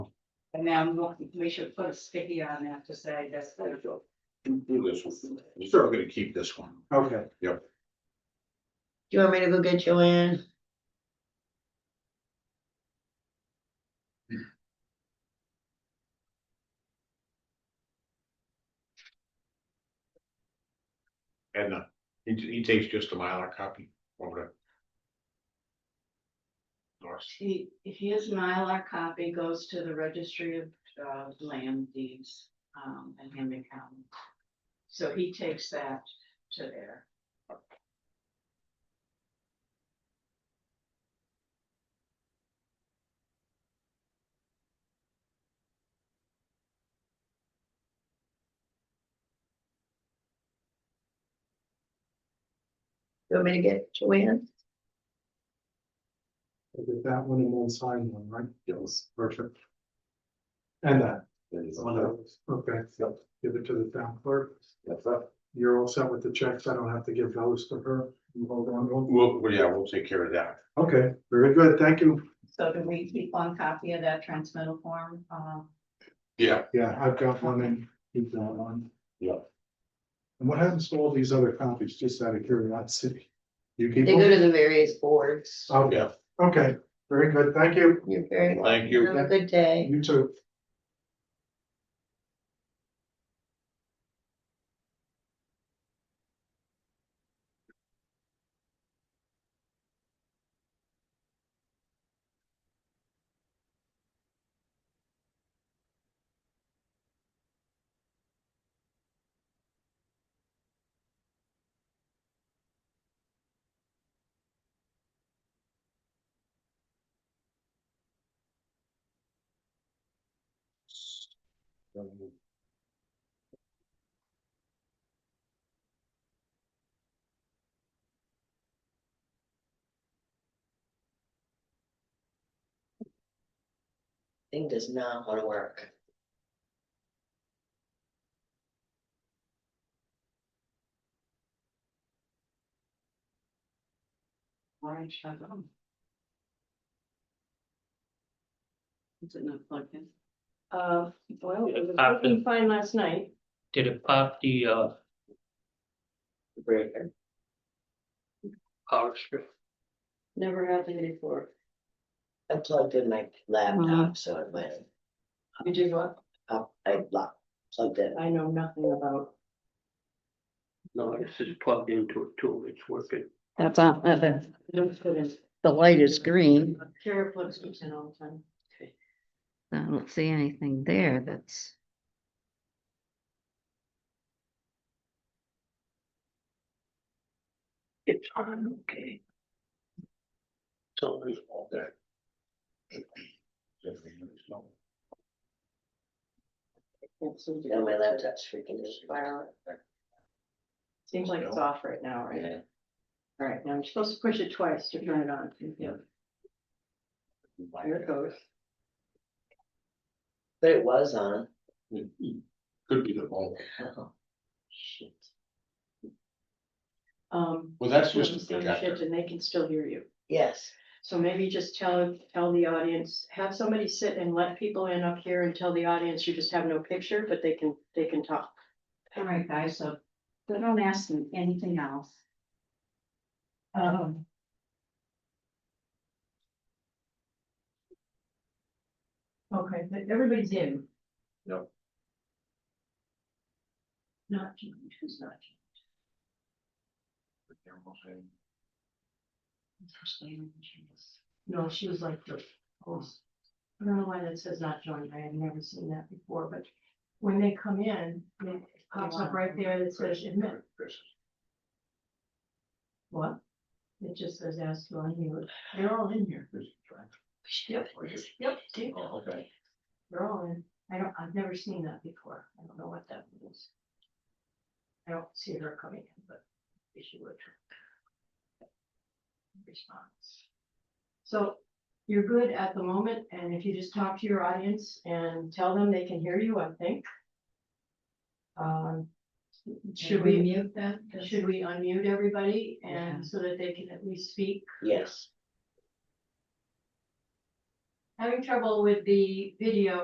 And then we'll- we should put a sticky on that to say that's the. Do this one. Sure, I'm gonna keep this one. Okay, you want me to go get Joanne? And uh, he, he takes just a Mylar copy over to. North. He, his Mylar copy goes to the registry of, uh, land deeds, um, in Henry County. So he takes that to there. You want me to get Joanne? we'll get that one and one sign one, right? Yes. Perfect. And that, one of those, okay, give it to the town clerk. That's that. You're all set with the checks, I don't have to give those to her. You hold on to them. Well, well, yeah, we'll take care of that. Okay, very good, thank you. So do we keep one copy of that transmittal form? Um, Yeah. Yeah, I've got one and keep that one. Yeah. And what happens to all these other copies, just out of curiosity? You keep They go them? to the various boards. Okay, Yeah. okay, very good, thank you. You're very welcome. Thank you. Have a good day. You too. Thing does not wanna work. orange, I don't know. Is it not plugged in? Uh, well, it was After- working fine last night. Did it pop the uh Breaker. power strip? Never happened before. I plugged in my laptop, so it went You did what? up, I blocked, plugged in. I know nothing about. No, this is plugged into it too, it's working. That's on, uh, the, the light is green. Kara plugs these in all the time. I don't see anything there that's. It's on, okay. It's on. Can't seem to Now my get it. laptop's freaking out. Seems like it's off right now, right? All right, now you're supposed to push it twice to turn it on. Yeah, There it goes. But it was on. Could be the phone. Oh, Shit. Um. Well, that's doing just a some projector. shit And they can still hear you. Yes, So maybe just tell, tell the audience, have somebody sit and let people in up here and tell the audience you just have no picture, but they can, they can talk. All right, guys, so they don't ask me anything else. Um. Okay, but everybody's in. Yep. Not James, who's not James? No, she was like the, host. I don't know why that says not joined, I have never seen that before, but when they come in, it pops up right there that says admit, what? It just says ask to unmute, they're all in here. Yep, yep, do. Oh, okay. They're all in, I don't, I've never seen that before, I don't know what that means. I don't see her coming in, but maybe she would. Response. So you're good at the moment, and if you just talk to your audience and tell them they can hear you, I think. Um, should we? mute that? Should we unmute everybody Yeah. and so that they can at least speak? yes. Having trouble with the video